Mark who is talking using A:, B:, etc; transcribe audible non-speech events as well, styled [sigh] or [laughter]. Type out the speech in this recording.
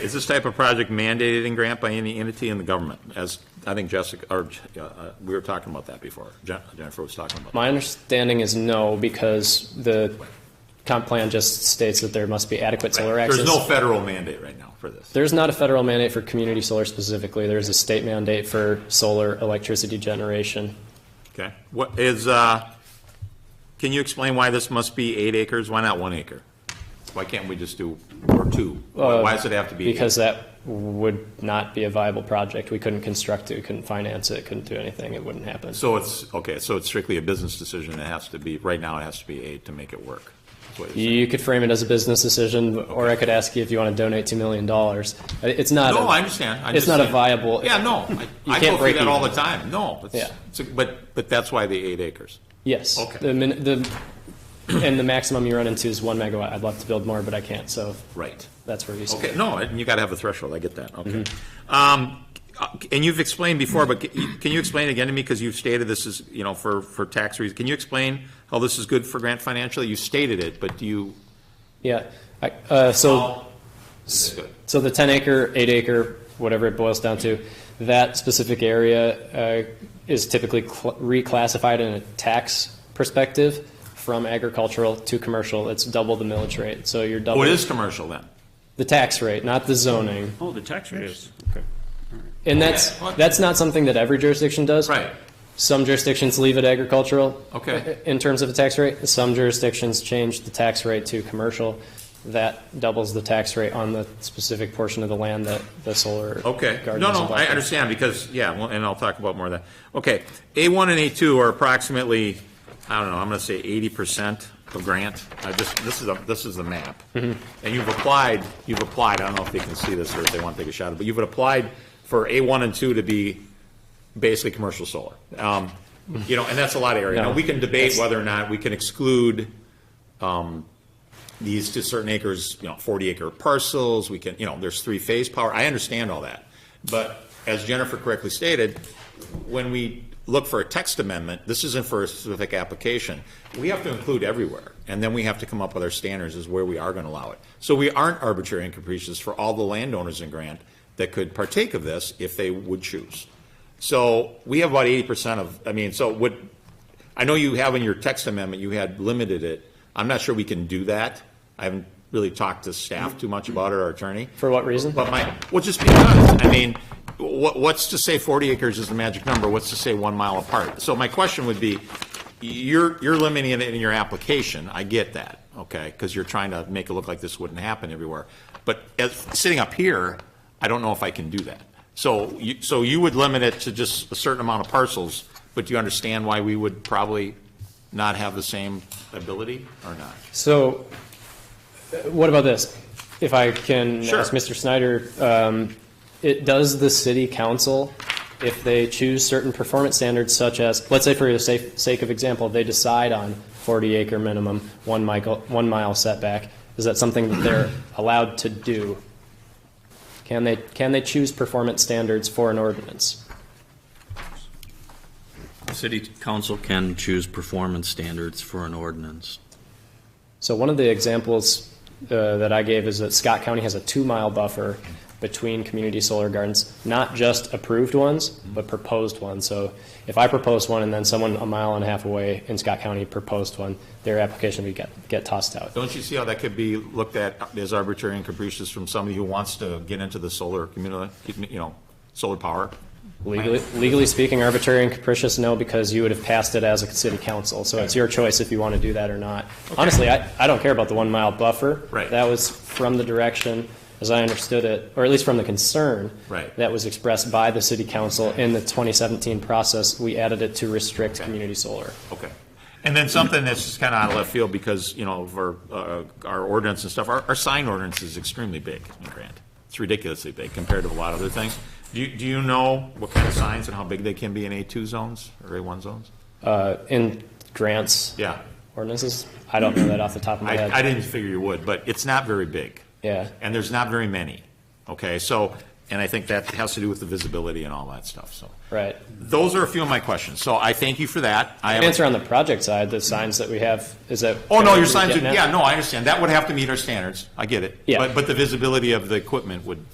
A: Is this type of project mandated in grant by any entity in the government? As, I think Jessica, or, uh, uh, we were talking about that before, Je- Jennifer was talking about. that.
B: My understanding is no, because the comp plan just states that there must be adequate solar access.
A: There's no federal mandate right now for this.
B: There's not a federal mandate for community solar specifically. There's a state mandate for solar electricity generation.
A: Okay, what is, uh, can you explain why this must be eight acres? Why not one acre? Why can't we just do, or two? Why why does it have to be? eight?
B: Because that would not be a viable project. We couldn't construct it, we couldn't finance it, couldn't do anything. It wouldn't happen.
A: So it's, okay, so it's strictly a business decision. It has to be, right now it has to be eight to make it work. That's what you're saying.
B: You could frame it as a business decision, or I could ask you if you want to donate $2 million. It's not.
A: No,
B: a-
A: I understand. I
B: It's not a
A: understand.
B: viable.
A: Yeah,
B: [laughs]
A: no, I- I
B: can't
A: go through
B: break
A: that all the
B: even.
A: time. No, it's,
B: Yeah.
A: it's a- but, but that's why the eight acres.
B: Yes.
A: Okay.
B: The, min- the, and the maximum you run into is one megawatt. I'd love to build more, but I can't, so
A: Right.
B: that's where you start.
A: Okay, no, and you got to have a threshold, I get that, okay.
B: Mm-hmm.
A: Um, uh, And you've explained before, but ca- you- can you explain again to me, because you've stated this is, you know, for, for tax reasons, can you explain how this is good for Grant Financial? You stated it, but do you?
B: Yeah, I, uh, so,
A: This is good.
B: so the ten acre, eight acre, whatever it boils down to, that specific area, uh, is typically cl- reclassified in a tax perspective from agricultural to commercial. It's double the millage rate, so you're double.
A: Oh, it is commercial then?
B: The tax rate, not the zoning.
C: Oh, the tax rate is.
B: And that's,
A: Okay.
B: that's not something that every jurisdiction does.
A: Right,
B: Some jurisdictions leave it agricultural. uh,
A: Okay.
B: In terms of the tax rate, some jurisdictions change the tax rate to commercial. That doubles the tax rate on the specific portion of the land that the solar.
A: okay.
B: garden
A: No,
B: is
A: no,
B: involved
A: I
B: in.
A: understand, because, yeah, well, and I'll talk about more of that. Okay, A1 and A2 are approximately, I don't know, I'm going to say eighty percent of grant. I just, this is, a this is the map. And you've applied, you've applied, I don't know if they can see this or if they want to take a shot at it, but you've applied for A1 and 2 to be basically commercial solar. Um, You know, and that's a lot of area. Now,
B: No,
A: we can debate
B: that's-
A: whether or not we can exclude um, these to certain acres, you know, 40-acre parcels, we can, you know, there's three-phase power, I understand all that. But as Jennifer correctly stated, when we look for a text amendment, this isn't for a specific application. We have to include everywhere, and then we have to come up with our standards as where we are going to allow it. So we aren't arbitrary and capricious for all the landowners in Grant that could partake of this if they would choose. So we have about 80% of, I mean, so what, I know you have in your text amendment, you had limited it. I'm not sure we can do that. I haven't really talked to staff too much about it, our attorney.
B: For what reason?
A: But my, well, just because, I mean, what, what's to say 40 acres is the magic number? What's to say one mile apart? So my question would be, you're, you're limiting it in your application, I get that, okay? Because you're trying to make it look like this wouldn't happen everywhere. But as, sitting up here, I don't know if I can do that. So you, so you would limit it to just a certain amount of parcels, but do you understand why we would probably not have the same ability or not?
B: So, uh, what about this? If I can
A: Sure.
B: ask Mr. Snyder, um, it, does the city council, if they choose certain performance standards such as, let's say for the safe, sake of example, they decide on 40 acre minimum, one mile, one mile setback, is that something that they're allowed to do? Can they, can they choose performance standards for an ordinance?
C: City council can choose performance standards for an ordinance.
B: So one of the examples uh, that I gave is that Scott County has a two-mile buffer between community solar gardens, not just approved ones, but proposed ones. So if I propose one and then someone a mile and a half away in Scott County proposed one, their application would get, get tossed out.
A: Don't you see how that could be looked at as arbitrary and capricious from somebody who wants to get into the solar community, you know, solar power?
B: Legally, legally speaking, arbitrary and capricious, no, because you would have passed it as a city council. So it's your choice if you want to do that or not. Honestly, I, I don't care about the one mile buffer.
A: Right.
B: That was from the direction, as I understood it, or at least from the concern.
A: Right.
B: That was expressed by the city council in the 2017 process. We added it to restrict community solar.
A: Okay. And then something that's just kind of out of left field because, you know, for uh, our ordinance and stuff, our, our sign ordinance is extremely big in Grant. It's ridiculously big compared to a lot of other things. Do you, do you know what kind of signs and how big they can be in A2 zones or A1 zones?
B: Uh, In grants
A: Yeah.
B: ordinances, I don't know that off the top of my
A: I, I
B: head.
A: didn't figure you would, but it's not very big.
B: Yeah.
A: And there's not very many, okay? So, and I think that has to do with the visibility and all that stuff, so.
B: Right.
A: Those are a few of my questions, so I thank you for that. I have-
B: Answer on the project side, the signs that we have, is that.
A: Oh, no,
B: what
A: your
B: you're
A: signs, are-
B: getting at?
A: yeah, no, I understand, that would have to meet our standards, I get it.
B: Yeah.
A: But, but the visibility of the equipment would